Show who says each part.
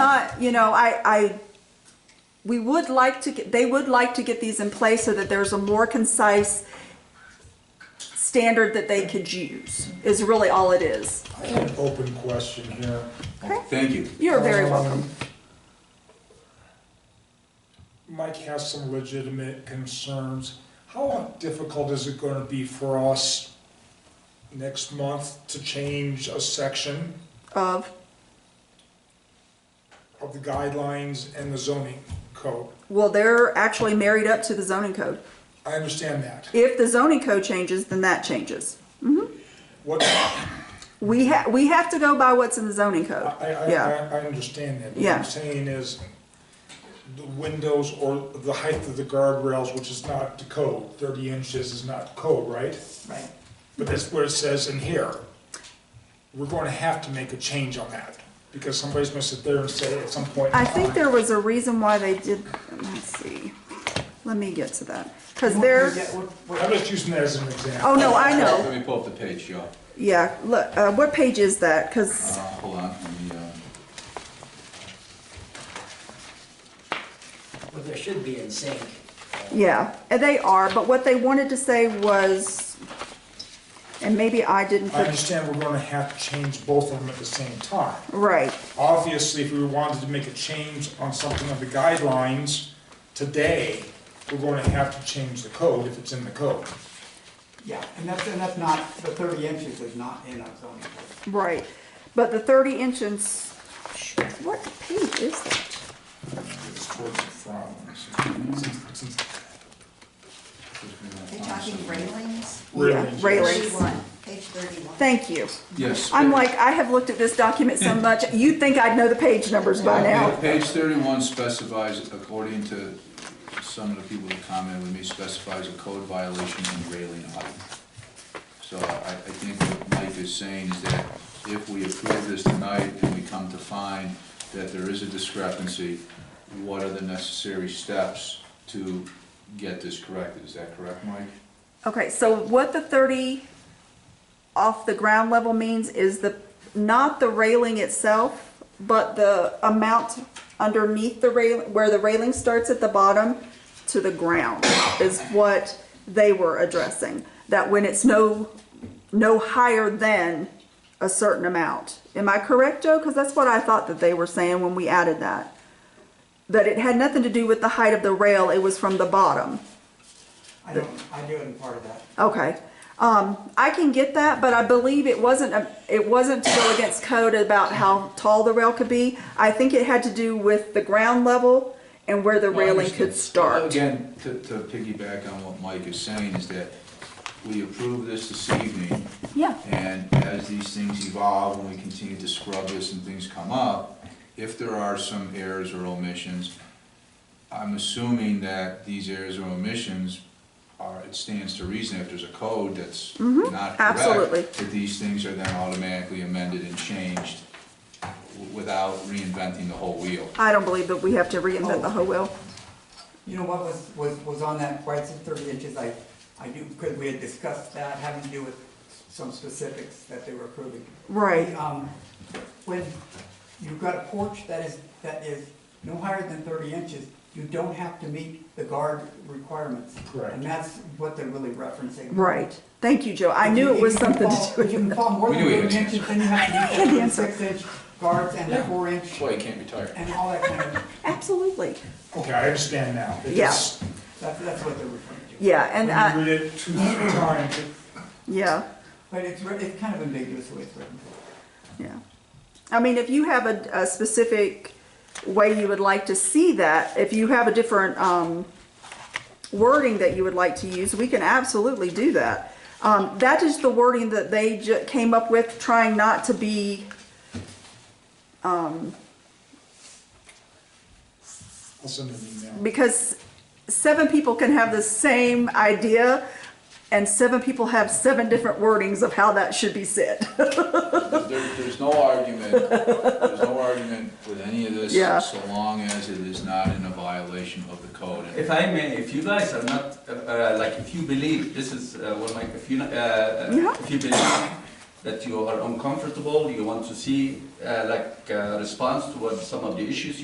Speaker 1: not, you know, I, I, we would like to, get they would like to get these in place so that there's a more concise standard that they could use, is really all it is.
Speaker 2: I have an open question here.
Speaker 1: Okay.
Speaker 3: Thank you.
Speaker 1: You're very welcome.
Speaker 2: Um, Mike has some legitimate concerns. How difficult is it gonna be for us next month to change a section
Speaker 1: Of,
Speaker 2: of the guidelines and the zoning code?
Speaker 1: well, they're actually married up to the zoning code.
Speaker 2: I understand that.
Speaker 1: If the zoning code changes, then that changes.
Speaker 2: What, I,
Speaker 1: We ha, we have to go by what's in the zoning
Speaker 2: I,
Speaker 1: code.
Speaker 2: I,
Speaker 1: Yeah,
Speaker 2: I understand that. What
Speaker 1: Yeah.
Speaker 2: I'm saying is the windows or the height of the guardrails, which is not the code, thirty inches is not code, right?
Speaker 4: Right.
Speaker 2: But that's what it says in here. We're going to have to make a change on that, because somebody's gonna sit there and say at some point. in
Speaker 1: I think
Speaker 2: time,
Speaker 1: there was a reason why they did, let's see, let me get to that, because
Speaker 4: What-
Speaker 1: there,
Speaker 4: what- what-
Speaker 2: I'm just using that as an example.
Speaker 1: oh, no, I know.
Speaker 3: Let me pull up the page, y'all.
Speaker 1: Yeah, look, uh, what page is that? Because,
Speaker 3: Uh, hold on, let me, uh,
Speaker 4: What there should be in sync.
Speaker 1: yeah, and they are, but what they wanted to say was, and maybe I didn't
Speaker 2: I
Speaker 1: put,
Speaker 2: understand we're gonna have to change both of them at the same time.
Speaker 1: right,
Speaker 2: Obviously, if we wanted to make a change on something of the guidelines today, we're going to have to change the code if it's in the code.
Speaker 5: Yeah, and that's, and that's not, the thirty inches is not in our zoning code.
Speaker 1: right. But the thirty inches, shoot, what page is that?
Speaker 2: It's towards the front. It's- it's-
Speaker 6: Are you talking railings?
Speaker 1: Yeah, Railings,
Speaker 6: 31, Page thirty-one.
Speaker 1: thank you.
Speaker 3: yes.
Speaker 1: I'm
Speaker 3: pa-
Speaker 1: like, I have looked at this document so much, you'd think I'd know the page numbers by
Speaker 3: yeah,
Speaker 1: now.
Speaker 3: Page thirty-one specifies, according to some of the people that commented with me, specifies a code violation in railing height. So I, I think what Mike is saying is that if we approve this tonight and we come to find that there is a discrepancy, what are the necessary steps to get this corrected? Is that correct, Mike?
Speaker 1: Okay, so what the thirty off the ground level means is the, not the railing itself, but the amount underneath the rail, where the railing starts at the bottom to the ground is what they were addressing. That when it's no, no higher than a certain amount. Am I correct, Joe? Cause that's what I thought that they were saying when we added that. That it had nothing to do with the height of the rail, it was from the bottom.
Speaker 5: I don't, I do it in part of that.
Speaker 1: Okay. Um, I can get that, but I believe it wasn't, a- it wasn't to go against code about how tall the rail could be. I think it had to do with the ground level and where the
Speaker 3: No, I
Speaker 1: railing could
Speaker 3: understand.
Speaker 1: start.
Speaker 3: Again, to, to piggyback on what Mike is saying, is that we approve this this evening,
Speaker 1: Yeah.
Speaker 3: and as these things evolve and we continue to scrub this and things come up, if there are some errors or omissions, I'm assuming that these errors or omissions are, it stands to reason if there's a code that's not correct.
Speaker 1: Mm-hmm. absolutely.
Speaker 3: That these things are then automatically amended and changed w- without reinventing the whole wheel.
Speaker 1: I don't believe that we have to reinvent the whole wheel.
Speaker 5: You know what was, was, was on that, why it's at thirty inches, I, I do, because we had discussed that, having to do with some specifics that they were approving.
Speaker 1: Right.
Speaker 5: Um, when you've got a porch that is, that is no higher than thirty inches, you don't have to meet the guard requirements.
Speaker 2: Correct.
Speaker 5: And that's what they're really referencing.
Speaker 1: Right. Thank you, Joe. I
Speaker 5: If
Speaker 1: knew
Speaker 5: you-
Speaker 1: it was
Speaker 5: if you
Speaker 1: something
Speaker 5: fall-
Speaker 1: to do
Speaker 5: If you can
Speaker 1: with
Speaker 5: fall more
Speaker 3: We
Speaker 5: than
Speaker 3: knew he
Speaker 5: three
Speaker 3: had an
Speaker 5: inches, then you have
Speaker 1: I
Speaker 5: to
Speaker 1: knew he
Speaker 5: do
Speaker 1: had an
Speaker 5: the six-inch guards and the
Speaker 3: Yeah. That's
Speaker 5: four-inch
Speaker 3: why you can't retire.
Speaker 5: and all that kind of,
Speaker 1: Absolutely.
Speaker 2: Okay, I understand now. It
Speaker 1: Yeah.
Speaker 2: just-
Speaker 5: that's, that's what they're referring to.
Speaker 1: Yeah, and uh,
Speaker 2: When
Speaker 1: I,
Speaker 2: you read it two, three times, it-
Speaker 1: yeah,
Speaker 5: But it's, re- it's kind of ambiguous the way it's written.
Speaker 1: yeah. I mean, if you have a, a specific way you would like to see that, if you have a different, um, wording that you would like to use, we can absolutely do that. Um, that is the wording that they ju- came up with, trying not to be,
Speaker 2: I'll send an email.
Speaker 1: because seven people can have the same idea, and seven people have seven different wordings of how that should be said.
Speaker 3: There, there's no argument, there's no argument with any of this,
Speaker 1: Yeah.
Speaker 3: so long as it is not in a violation of the code.
Speaker 7: If I may, if you guys are not, uh, uh, like, if you believe, this is uh, what my, if you, uh, uh,
Speaker 1: Yeah.
Speaker 7: if you believe that you are uncomfortable, you want to see, uh, like, uh, response towards some of the issues